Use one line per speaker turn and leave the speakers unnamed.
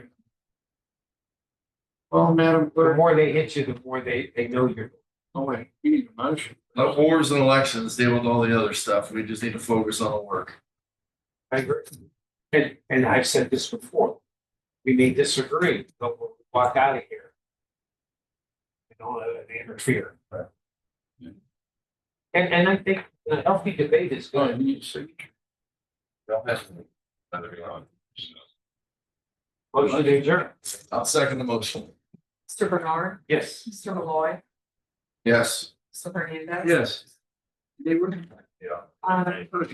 Well, Madam
The
Clerk,
more they hit you, the more they, they know you're.
oh wait, you need a motion.
The wars and elections deal with all the other stuff. We just need to focus on the work.
I agree. And, and I've said this before. We may disagree, but we'll walk out of here. We don't let it interfere.
Right.
Yeah.
And, and I think the healthy debate is
Oh,
good.
you need a signature.
Motion to adjourn.
I'll second the motion.
Mr. Bernard,
Yes.
Mr. Malloy,
Yes.
Mr. Hernandez.
Yes. They were.
Yeah.
Um,